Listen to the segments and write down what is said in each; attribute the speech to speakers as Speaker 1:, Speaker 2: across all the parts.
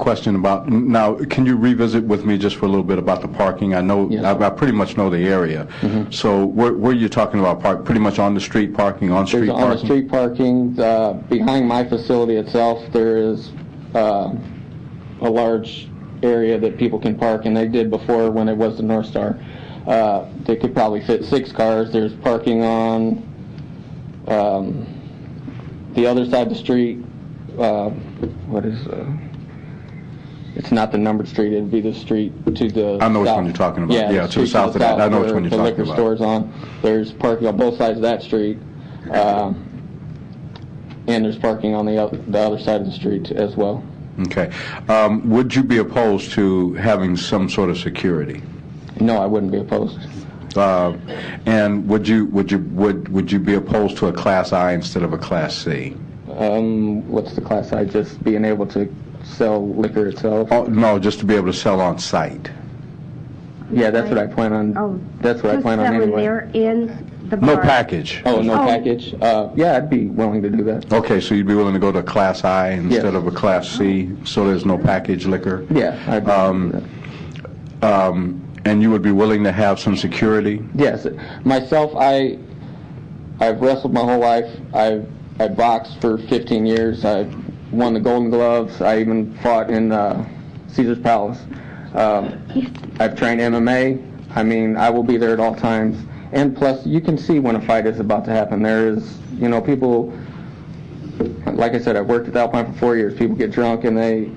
Speaker 1: question about, now, can you revisit with me just for a little bit about the parking? I know,
Speaker 2: Yes. Mm-hmm.
Speaker 1: I I pretty much know the area. So where where you're talking about park, pretty much on the street parking, on-street
Speaker 2: There's
Speaker 1: parking?
Speaker 2: on-street parking, uh, behind my facility itself, there is uh, a large area that people can park, and they did before when it was the North Star. Uh, They could probably fit six cars, there's parking on um, the other side of the street, uh, what is, uh, it's not the numbered street, it'd be the street to the
Speaker 1: I know which one
Speaker 2: south.
Speaker 1: you're talking about. Yeah, to the
Speaker 2: street
Speaker 1: south of that. I know which
Speaker 2: where
Speaker 1: one you're
Speaker 2: the
Speaker 1: talking
Speaker 2: liquor
Speaker 1: about.
Speaker 2: stores on. There's parking on both sides of that street. um, And there's parking on the oth- the other side of the street as well.
Speaker 1: Okay. Um, Would you be opposed to having some sort of security?
Speaker 2: No, I wouldn't be opposed.
Speaker 1: Uh, And would you, would you, would would you be opposed to a Class I instead of a Class C?
Speaker 2: Um, What's the class size? Just being able to sell liquor itself?
Speaker 1: Oh, No, just to be able to sell on-site?
Speaker 2: Yeah, that's what I plan
Speaker 3: Oh.
Speaker 2: on, that's what I
Speaker 3: Just
Speaker 2: plan on
Speaker 3: that when
Speaker 2: anyway.
Speaker 3: they're in the
Speaker 1: No
Speaker 3: bar.
Speaker 1: package?
Speaker 2: Oh, no
Speaker 3: Oh.
Speaker 2: package? Uh, Yeah, I'd be willing to do that.
Speaker 1: Okay, so you'd be willing to go to a Class I instead
Speaker 2: Yes.
Speaker 1: of a Class C, so there's no package liquor?
Speaker 2: Yeah, I'd be willing to do that.
Speaker 1: And you would be willing to have some security?
Speaker 2: Yes, myself, I, I've wrestled my whole life. I've I boxed for 15 years. I won the Golden Gloves. I even fought in uh, Caesar's Palace. Um, I've trained MMA. I mean, I will be there at all times. And plus, you can see when a fight is about to happen. There is, you know, people. Like I said, I've worked at Alpine for four years. People get drunk and they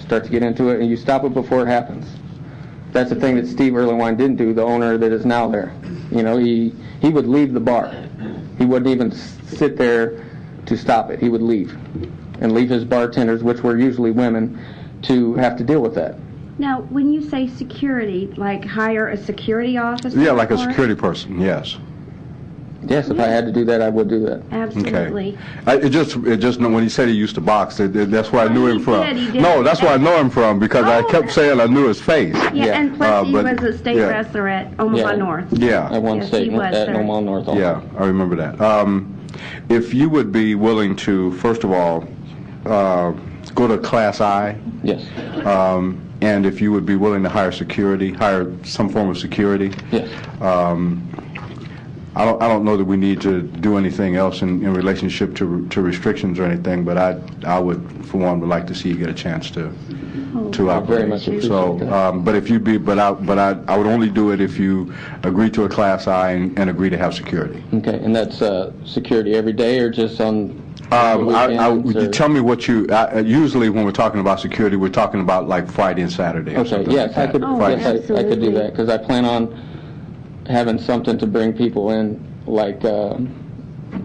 Speaker 2: start to get into it, and you stop it before it happens that's the thing that Steve Erlewine didn't do, the owner that is now there. You know, he, he would leave the bar. He wouldn't even s- sit there to stop it. He would leave and leave his bartenders, which were usually women, to have to deal with that.
Speaker 3: Now, when you say security, like hire a security officer?
Speaker 1: Yeah, like a
Speaker 3: for it?
Speaker 1: security person, yes.
Speaker 2: Yes, if I had to do that, I would do that.
Speaker 3: Absolutely.
Speaker 1: I, it just, it just, when he said he used to box, it, it- that's where I knew
Speaker 3: He
Speaker 1: him from.
Speaker 3: did, he did.
Speaker 1: No, that's where I know him from, because I
Speaker 3: Oh.
Speaker 1: kept saying I knew his face.
Speaker 3: Yeah,
Speaker 2: Yeah.
Speaker 3: and
Speaker 1: Uh,
Speaker 3: plus he
Speaker 1: but-
Speaker 3: was a state
Speaker 1: yeah.
Speaker 3: wrestler at Omaha
Speaker 2: Yeah.
Speaker 3: North.
Speaker 2: I
Speaker 1: Yeah,
Speaker 2: won
Speaker 3: Yes, he
Speaker 2: state
Speaker 3: was,
Speaker 2: at
Speaker 3: sir.
Speaker 2: Normal North also.
Speaker 1: yeah, I remember that. Um, if you would be willing to, first of all, uh, go to Class I,
Speaker 2: Yes,
Speaker 1: um, and if you would be willing to hire security, hire some form of security,
Speaker 2: yes.
Speaker 1: I don't, I don't know that we need to do anything else in, in relationship to, to restrictions or anything, but I, I would, for one, would like to see you get a chance to, to
Speaker 2: I
Speaker 1: operate.
Speaker 2: very much appreciate
Speaker 1: So,
Speaker 2: that.
Speaker 1: um, but if you'd be, but I, but I, I would only do it if you agree to a Class I and, and agree to have security.
Speaker 2: Okay, and that's uh, security every day or just on
Speaker 1: Um, I, I,
Speaker 2: weekends
Speaker 1: would you
Speaker 2: or-
Speaker 1: tell me what you, I- I- usually when we're talking about security, we're talking about like Friday and Saturday or
Speaker 2: Okay,
Speaker 1: something like
Speaker 2: yes, I
Speaker 1: that.
Speaker 2: could,
Speaker 3: Oh,
Speaker 1: Friday.
Speaker 2: yes, I I could do
Speaker 3: absolutely.
Speaker 2: that, because I plan on having something to bring people in, like, uh,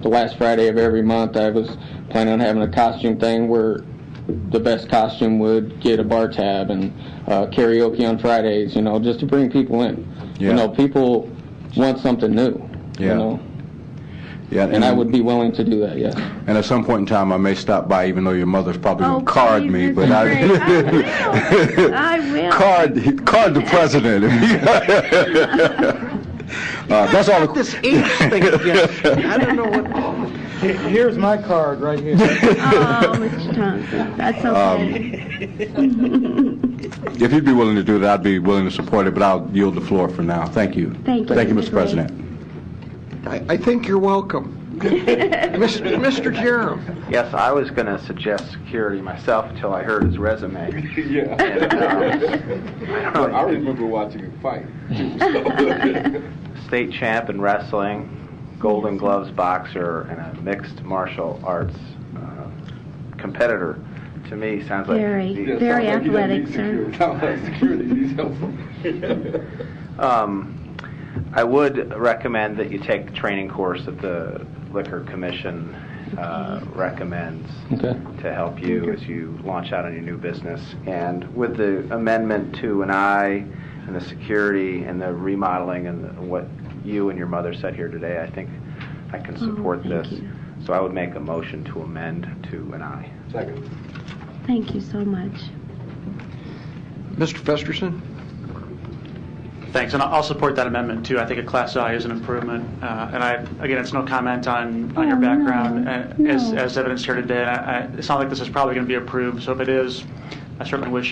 Speaker 2: the last Friday of every month, I was planning on having a costume thing where the best costume would get a bar tab, and uh, karaoke on Fridays, you know, just to bring people in.
Speaker 1: Yeah.
Speaker 2: You know, people want something new,
Speaker 1: Yeah. Mm.
Speaker 2: you know,
Speaker 1: Yeah,
Speaker 2: and I would be willing to do that, yes.
Speaker 1: And at some point in time, I may stop by, even though your mother's probably
Speaker 3: Oh,
Speaker 1: gonna card
Speaker 3: please,
Speaker 1: me,
Speaker 3: Mr.
Speaker 1: but I,
Speaker 3: Gray, I will. I will.
Speaker 1: card, card the president. Uh, that's all the
Speaker 4: This age thing again. I don't know what,
Speaker 5: Here- Here's my card right here.
Speaker 3: Oh, Mr. Thompson, that's
Speaker 1: Um,
Speaker 3: okay.
Speaker 1: If you'd be willing to do that, I'd be willing to support it, but I'll yield the floor for now. Thank you.
Speaker 3: Thank you,
Speaker 1: Thank you,
Speaker 3: Mr.
Speaker 1: Mr.
Speaker 3: Gray.
Speaker 1: President.
Speaker 4: I I think you're welcome. Mr. Mr. Jerem,
Speaker 6: Yes, I was going to suggest security myself until I heard his resume. Yeah. I remember watching him fight. uh, State champ in wrestling, Golden Gloves boxer, and a mixed martial arts uh, competitor. To me, sounds like
Speaker 3: Very,
Speaker 6: the-
Speaker 3: very athletic, sir.
Speaker 6: Um, I would recommend that you take the training course that the Liquor Commission uh, recommends
Speaker 2: Okay.
Speaker 6: to help you as you launch out on your new business. And with the amendment to an I and the security and the remodeling and the- what you and your mother said here today, I think I can support
Speaker 3: Oh, thank
Speaker 6: this.
Speaker 3: you.
Speaker 6: So I would make a motion to amend to an I.
Speaker 3: Thank you so much.
Speaker 4: Mr. Festerson?
Speaker 7: Thanks, and I'll I'll support that amendment too. I think a Class I is an improvement. Uh, And I, again, it's no comment on, on your
Speaker 3: Oh, no,
Speaker 7: background uh, as,
Speaker 3: no.
Speaker 7: as evidence here today. I- I- It's not like this is probably going to be approved, so if it is, I certainly wish